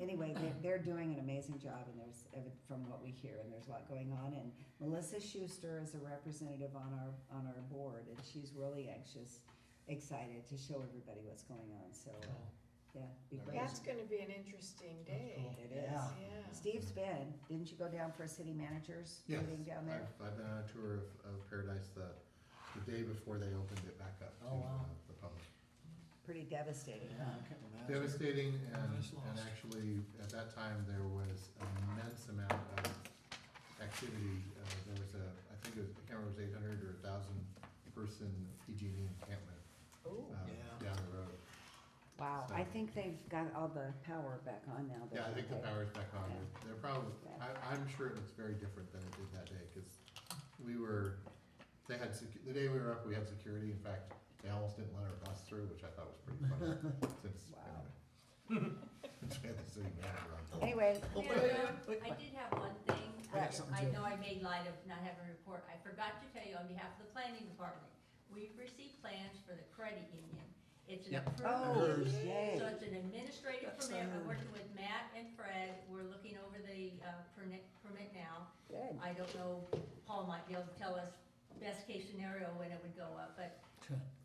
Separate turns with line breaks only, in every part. anyway, they're, they're doing an amazing job and there's, ev- from what we hear, and there's a lot going on. And Melissa Schuster is a representative on our, on our board and she's really anxious, excited to show everybody what's going on, so, uh, yeah. be
Very
great.
That's gonna be an interesting day.
cool.
It is.
Yeah.
Yeah.
Steve's been, didn't you go down for a city managers
Yes,
meeting down
I've,
there?
I've been on a tour of, of Paradise the, the day before they opened it back up to
Oh, wow.
uh, the public.
Pretty devastating,
Yeah, I
huh?
can imagine.
Devastating and,
that's lost.
and actually, at that time, there was immense amount of activity. Uh, there was a, I think it was, I can't remember, if it was eight hundred or a thousand person PG and E encampment,
Ooh.
uh,
Yeah.
down the road.
Wow, I
So-
think they've got all the power back on now.
Yeah, I think the
though.
power's back on.
Yeah.
They're probably,
Yeah.
I, I'm sure it looks very different than it did that day, cause we were, they had, secu- the day we were up, we had security. In fact, they almost didn't let our bus through, which I thought was pretty funny, since.
Wow.
anyway. Since we had the city manager on.
Anyway,
um, I did have one thing.
I got something
I
too.
know I made light of not having a report. I forgot to tell you on behalf of the planning department, we've received plans for the credit union. It's an
Yep.
oh,
approved,
yay.
so it's an administrative
That's,
permit.
uh,
I'm working with Matt and Fred. We're looking over the, uh, permit, permit now.
Good.
I don't know, Paul might be able to tell us best case scenario when it would go up, but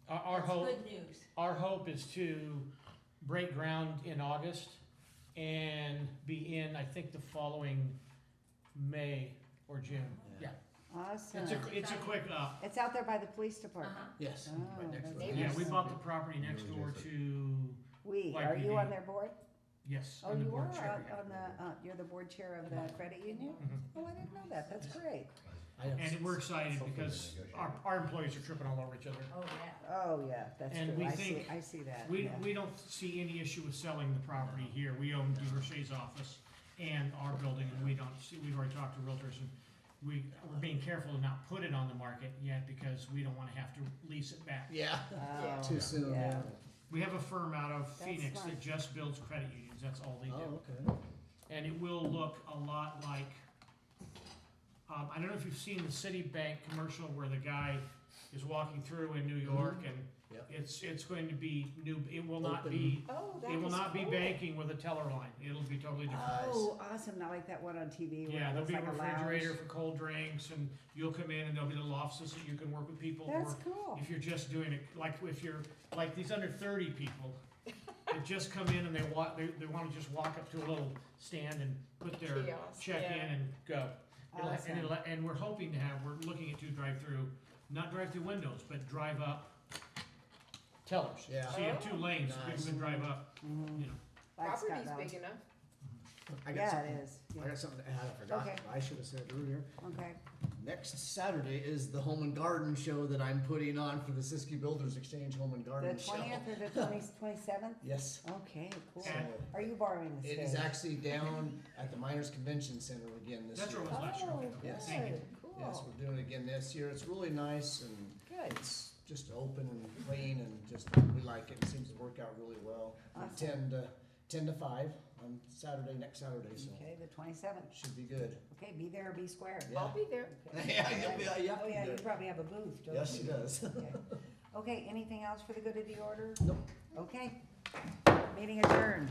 Our, our
it's
hope,
good news.
our hope is to break ground in August and be in, I think, the following May or June. Yeah,
Awesome.
it's a, it's a quick, uh,
It's out there by the police department.
Uh-huh.
Yes,
Oh,
right next to
that's
the
nice.
yeah, we
house.
bought the property next door to,
We, are you
YPD.
on their board?
yes,
Oh,
on the
you are
board
out
chair.
on the, uh, you're the board chair of the credit union?
Mhm.
Oh, I didn't know that. That's great.
I have
And we're excited
Hopefully they
because
negotiate.
our, our employees are tripping all over each other.
Oh, yeah.
Oh, yeah, that's
And
true.
we
I see,
think
I see that.
We,
yeah.
we don't see any issue with selling the property here. We own DeRoche's office and our building, and we don't see, we've already talked to realtors, and we, we're being careful to not put it on the market yet, because we don't wanna have to lease it back.
Yeah,
Oh,
too soon.
yeah.
We have a firm out of
That's
Phoenix
smart.
that just builds credit unions, that's all they
Oh,
do.
okay.
And it will look a lot like, um, I don't know if you've seen the Citibank commercial where the guy is walking through in New York, and
Yep.
it's, it's going to be new, it will not be
Oh, that
It will
is
not be
cool.
banking with a teller line. It'll be totally different.
Oh, awesome. Not like that one on TV where
Yeah,
it
there'll
looks
be a
like
refrigerator for cold drinks and you'll come in and there'll be little offices that you can work with people.
lounge. That's
or
cool.
If you're just doing it, like if you're, like these under thirty people that just come in and they walk, they, they wanna just walk up to a little stand and put their
Kiosk,
check in
yeah.
and go. It'll- and
Awesome.
it'll- And we're hoping to have, we're looking at two drive-through, not drive-through windows, but drive-up tellers.
Yeah.
So you have two
Oh.
lanes, so people
Nice.
can drive up,
Mhm.
you know.
Like Scott
Property's
Mountain.
big enough.
I got
Yeah,
something.
it is.
I got something to add. I forgot.
Okay.
I should have said it earlier.
Yeah. Okay.
Next Saturday is the Home and Garden Show that I'm putting on for the Siskiyou Builders Exchange Home and
The
Garden Show.
twentieth or the twenty, twenty-seventh?
Yes.
Okay, cool.
And-
Are you borrowing the
It
stage?
is actually down at the Miners Convention Center again this
That's
year.
where it was last year.
Oh,
Okay.
Yes.
Thank you.
good,
Yes,
cool,
we're doing it again this year. It's really nice and
good.
it's just open and clean and just, we like it. It seems to work out really well. From
Awesome.
Ten to, ten to five on Saturday, next Saturday, so
Okay, the twenty-seventh.
should be good.
Okay, be there or be square.
I'll be there.
Okay.
Yeah, you'll be- yeah,
Oh,
you'll
yeah,
be
you
there.
probably have a booth, don't you?
Yes, she does.
Okay. Okay, anything else for the good of the order?
Nope.
Okay. Meeting adjourned.